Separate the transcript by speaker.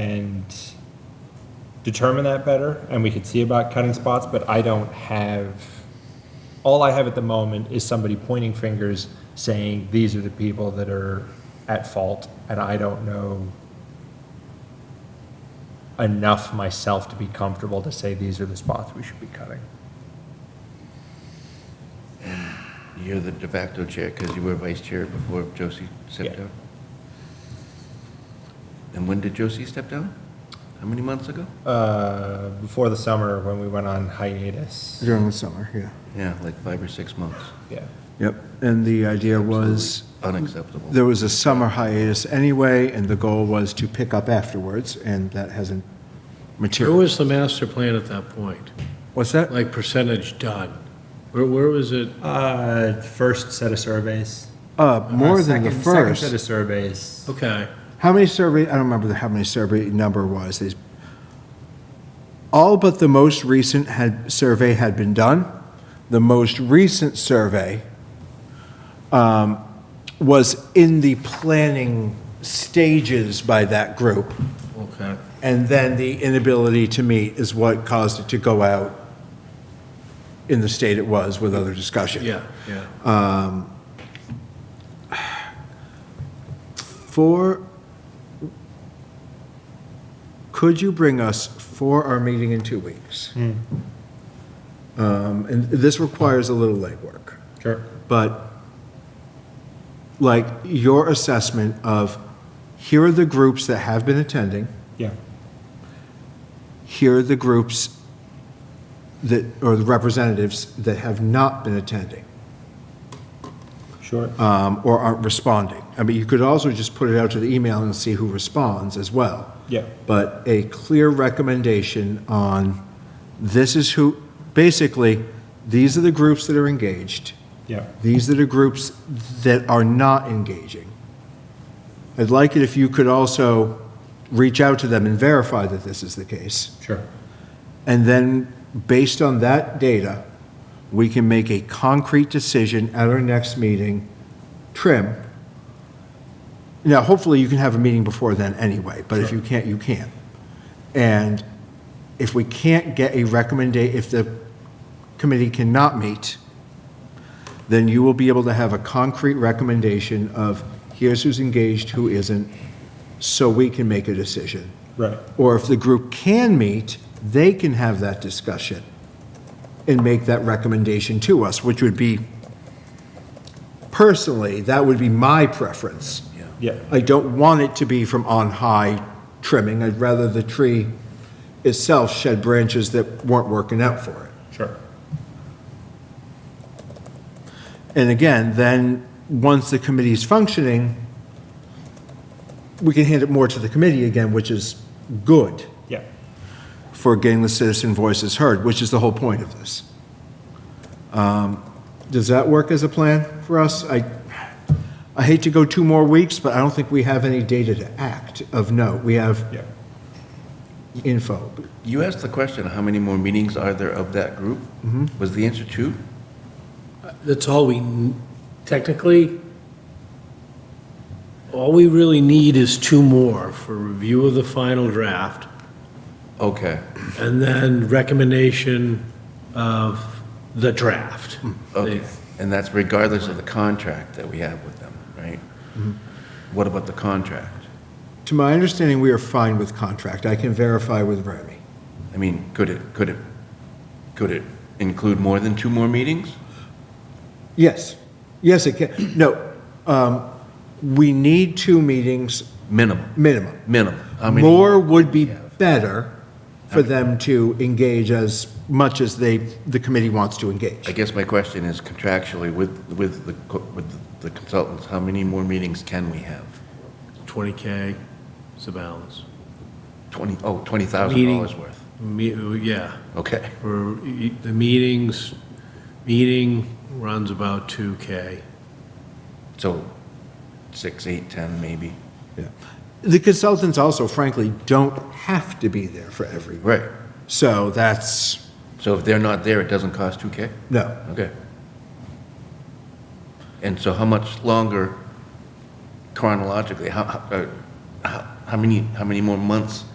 Speaker 1: and determine that better, and we could see about cutting spots, but I don't have, all I have at the moment is somebody pointing fingers, saying, these are the people that are at fault, and I don't know enough myself to be comfortable to say these are the spots we should be cutting.
Speaker 2: You're the de facto chair because you were vice chair before Josie
Speaker 1: Yeah.
Speaker 2: stepped down? And when did Josie step down? How many months ago?
Speaker 1: Uh, before the summer, when we went on hiatus,
Speaker 3: During the summer, yeah.
Speaker 2: Yeah, like five or six months.
Speaker 1: yeah.
Speaker 3: Yep, and the idea was,
Speaker 2: Unacceptable.
Speaker 3: there was a summer hiatus anyway, and the goal was to pick up afterwards, and that hasn't
Speaker 4: Where
Speaker 3: materialized.
Speaker 4: was the master plan at that point?
Speaker 3: What's that?
Speaker 4: Like percentage done? Where, where was it?
Speaker 1: Uh, first set of surveys.
Speaker 3: Uh, more than the
Speaker 1: Second- Second set of
Speaker 3: first.
Speaker 1: surveys.
Speaker 4: Okay,
Speaker 3: How many survey, I don't remember the- how many survey number was. There's- All but the most recent had, survey had been done. The most recent survey um, was in the planning stages by that group.
Speaker 4: okay.
Speaker 3: And then the inability to meet is what caused it to go out in the state it was with other discussion.
Speaker 4: Yeah, yeah.
Speaker 3: For, could you bring us for our meeting in two weeks? Um, And this requires a little legwork.
Speaker 1: Sure.
Speaker 3: but like your assessment of here are the groups that have been attending,
Speaker 1: Yeah.
Speaker 3: here are the groups that, or the representatives that have not been attending
Speaker 1: Sure. Uh,
Speaker 3: um, or aren't responding. I mean, you could also just put it out to the email and see who responds as well.
Speaker 1: Yeah.
Speaker 3: But a clear recommendation on this is who, basically, these are the groups that are engaged.
Speaker 1: Yeah.
Speaker 3: These are the groups that are not engaging. I'd like it if you could also reach out to them and verify that this is the case.
Speaker 1: Sure.
Speaker 3: And then, based on that data, we can make a concrete decision at our next meeting, trim. Now, hopefully, you can have a meeting before then anyway, but if you can't, you can't. And if we can't get a recommendation, if the committee cannot meet, then you will be able to have a concrete recommendation of, here's who's engaged, who isn't, so we can make a decision.
Speaker 1: Right.
Speaker 3: Or if the group can meet, they can have that discussion and make that recommendation to us, which would be, personally, that would be my preference.
Speaker 1: Yeah.
Speaker 3: I don't want it to be from on high trimming. I'd rather the tree itself shed branches that weren't working out for it.
Speaker 1: Sure.
Speaker 3: And again, then, once the committee's functioning, we can hand it more to the committee again, which is good
Speaker 1: Yeah.
Speaker 3: for getting the citizen voices heard, which is the whole point of this. Um, Does that work as a plan for us? I, I hate to go two more weeks, but I don't think we have any data to act of note. We have
Speaker 1: Yeah.
Speaker 3: info.
Speaker 2: You asked the question, how many more meetings are there of that group? Was the answer two?
Speaker 4: Uh, That's all we, n- technically, all we really need is two more for review of the final draft
Speaker 2: Okay,
Speaker 4: and then recommendation of the draft.
Speaker 2: okay. And that's regardless of the contract that we have with them, right? What about the contract?
Speaker 3: To my understanding, we are fine with contract. I can verify with Remy.
Speaker 2: I mean, could it, could it, could it include more than two more meetings?
Speaker 3: Yes, yes, it can. No, um, we need two meetings
Speaker 2: Minimum,
Speaker 3: minimum.
Speaker 2: minimum. How many?
Speaker 3: More would be better for them to engage as much as they, the committee wants to
Speaker 2: I
Speaker 3: engage.
Speaker 2: guess my question is contractually with, with the, co- with the consultants, how many more meetings can we have?
Speaker 4: 20K is the balance.
Speaker 2: Twenty, oh, twenty thousand
Speaker 4: Meeting.
Speaker 2: dollars worth.
Speaker 4: Me- Yeah.
Speaker 2: Okay,
Speaker 4: For e- the meetings, meeting runs about 2K.
Speaker 2: so six, eight, ten maybe.
Speaker 3: Yeah. The consultants also frankly don't have to be there for every,
Speaker 2: Right.
Speaker 3: so that's,
Speaker 2: So if they're not there, it doesn't cost two K?
Speaker 3: no.
Speaker 2: Okay. And so how much longer chronologically, how, how, uh, how, how many, how many more months